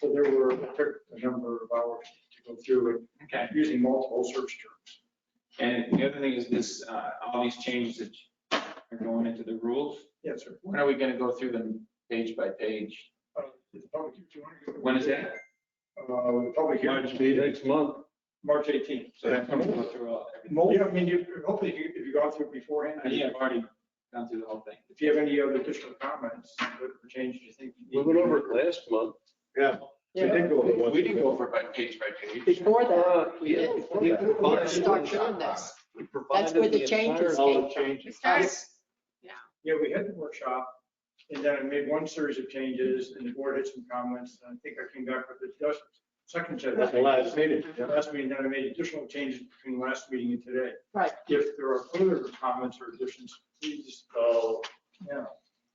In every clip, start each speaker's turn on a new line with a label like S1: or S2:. S1: So there were, it took a number of hours to go through it,
S2: Okay,
S1: using multiple search terms.
S2: and the other thing is this, uh, all these changes that are going into the rules,
S1: Yes, sir.
S2: when are we gonna go through them page by page?
S1: Uh, it's public- do you wanna go-
S2: When is that?
S1: Uh, the public hearing,
S3: March meeting next month.
S1: March 18th.
S2: So that's when we go through all, everything.
S1: Mo- Yeah, I mean, you, hopefully if you, if you go through it beforehand,
S2: I think I've already gone through the whole thing.
S1: if you have any other additional comments, what changes you think. you
S3: We
S1: need
S3: went
S1: to
S3: over
S1: do.
S3: it last month.
S1: We did go over it.
S2: We didn't go over it by page by page.
S4: Before that,
S3: Uh, yeah, we
S4: we
S3: provided-
S4: start doing this.
S3: we provided
S4: That's where the
S3: entire-
S4: changes
S3: All the
S4: came.
S3: changes.
S4: Us,
S1: Yeah, we had the workshop, and then I made one series of changes, and the board had some comments, and I think I came back with a dozen- second set of
S3: That's the last meeting.
S1: Yeah, Last meeting, then I made additional changes between last meeting and today.
S4: Right.
S1: If there are further comments or additions, please, uh, yeah,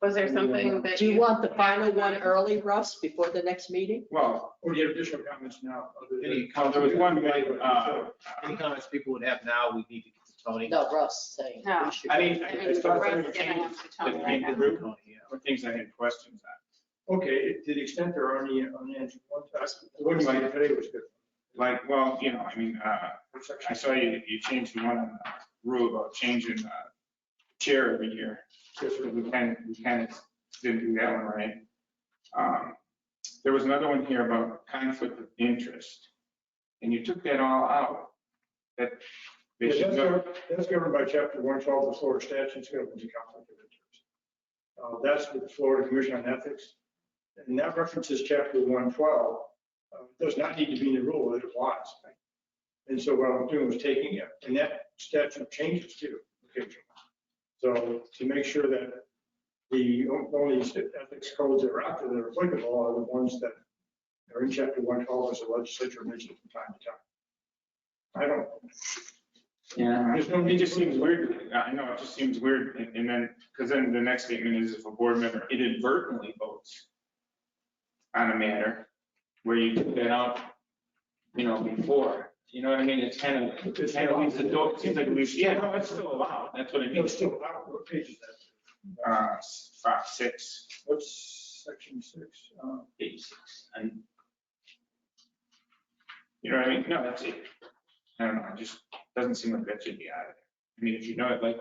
S5: Was there something that
S4: Do you
S5: you,
S4: want the final one early, Russ, before the next meeting?
S1: well, or do you have additional comments now? other than-
S6: Any comments? There was
S1: one made, uh,
S6: Any comments people would have now, we need to get to Tony.
S4: No, Russ saying. we
S5: No.
S4: should-
S2: I mean,
S5: I
S2: I-
S5: mean,
S2: I
S5: Russ
S2: started
S5: gonna
S2: trying to
S5: have
S2: change
S5: to tell me
S2: the
S5: right
S2: things
S5: now.
S2: that were-
S6: Tony, yeah.
S2: the things I had questions on.
S1: Okay, to the extent there are any unanswered ones, I- the one you made today was good.
S2: Like, well, you know, I mean, uh,
S1: What section?
S2: I saw you, you changed the one on the rule about changing uh, chair every year.
S1: Yes, sir.
S2: We kind of, we kind of didn't do that one right. Um, There was another one here about conflict of interest, and you took that all out. That they
S1: Yeah,
S2: should
S1: That's
S2: know,
S1: governed- that's governed by chapter one twelve of the Florida statutes, governs the conflict of interest. Uh, That's with the Florida Commission on Ethics. And that references chapter one twelve, uh, does not need to be in the rule, it applies. And so what I'm doing was taking it, and that statute changes too. occasionally. So to make sure that the only ethics codes that are out there that are applicable are the ones that are in chapter one twelve, as the legislature mentioned from time to time. I don't,
S2: yeah, there's no- it just seems weird, I know, it just seems weird, and and then, because then the next statement is if a board member inadvertently votes on a matter, where you took that out, you know, before, you know what I mean, it's kind of, It kind of leaves the door, it seems like it leaves, yeah, no, it's still allowed, that's what I
S1: No,
S2: mean.
S1: it's still, allowed. what page is that?
S2: Uh, s- five, six,
S1: What's section six? Uh,
S2: eight, six, and. You know what I mean? No, that's it. I don't know, it just doesn't seem like that should be out of there. I mean, if you know it, like,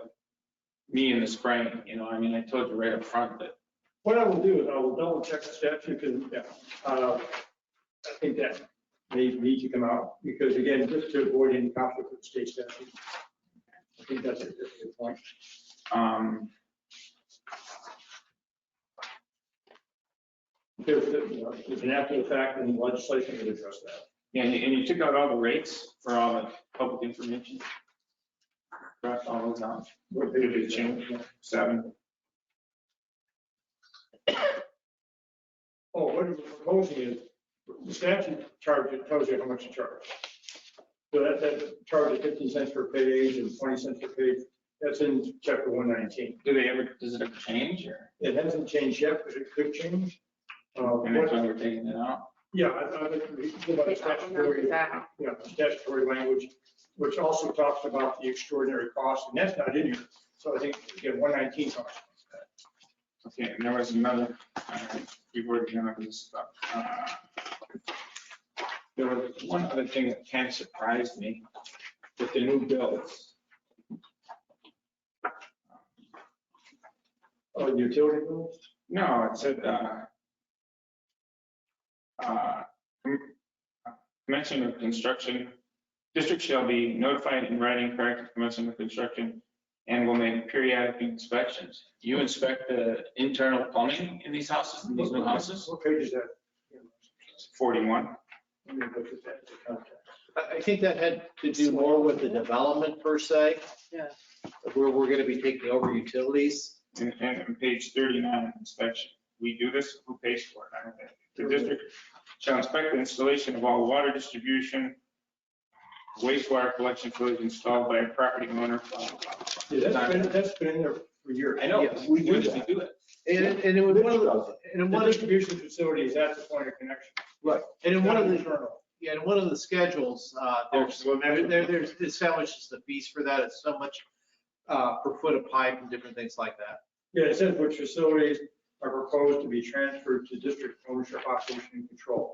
S2: me in the spring, you know, I mean, I told you right up front that,
S1: What I will do is I will double check the statute because, yeah, uh, I think that may need to come out because again, just to avoid any conflict with state statute. I think that's a that's a good point.
S2: um,
S1: There's, you know, there's an after the fact and the legislation would address that.
S2: and, and you took out all the rates for all the public information. Crossed all those out,
S1: What
S2: Did it change? seven,
S1: Oh, what we're proposing is, the statute charge, it tells you how much to charge. So that, that charge of fifteen cents per page and twenty cents per page, that's in chapter one nineteen.
S2: do they ever, does it ever change or?
S1: It hasn't changed yet, but it could change. Uh,
S2: And that's
S1: what-
S2: why we're taking it out.
S1: Yeah, I, I think we go by
S5: Okay, I don't know
S1: statutory,
S5: that.
S1: yeah, statutory language, which also talks about the extraordinary cost, and that's not in here. So I think, again, one nineteen talks about
S2: Okay, and there was another, uh, we were going to this stuff. Uh, There was one other thing that kind of surprised me with the new bills.
S1: that. Oh, utility bills?
S2: No, it said, uh, uh, com- commencement of construction, district shall be notified in writing prior to commencement of construction and will make periodic inspections. You inspect the internal plumbing in these houses, in these new houses?
S1: What page is that?
S2: 41.
S1: Let me look at that.
S6: I, I think that had to do more with the development per se.
S4: Yeah.
S6: of Where we're gonna be taking over utilities.
S2: And, and on page thirty-nine, inspection, we do this, who pays for it? I don't think. The district shall inspect the installation of all water distribution, wastewater collection facilities installed by a property owner. blah, blah, blah.
S1: Yeah, that's been, that's been in there for years.
S2: I know,
S6: Yes,
S2: we
S6: we
S2: do
S6: do
S2: we do it.
S6: And, and it was one of the, and in
S1: The
S6: one of,
S1: distribution facility is at the point of connection.
S6: right, and in one of the,
S1: Internal.
S6: yeah, in one of the schedules, uh, there's,
S2: Well,
S6: there,
S2: that-
S6: there- there's it establishes the fees for that. It's so much, uh, per foot of pipe and different things like that.
S1: Yeah, it says which facilities, are proposed to be transferred to district ownership, operation, and control.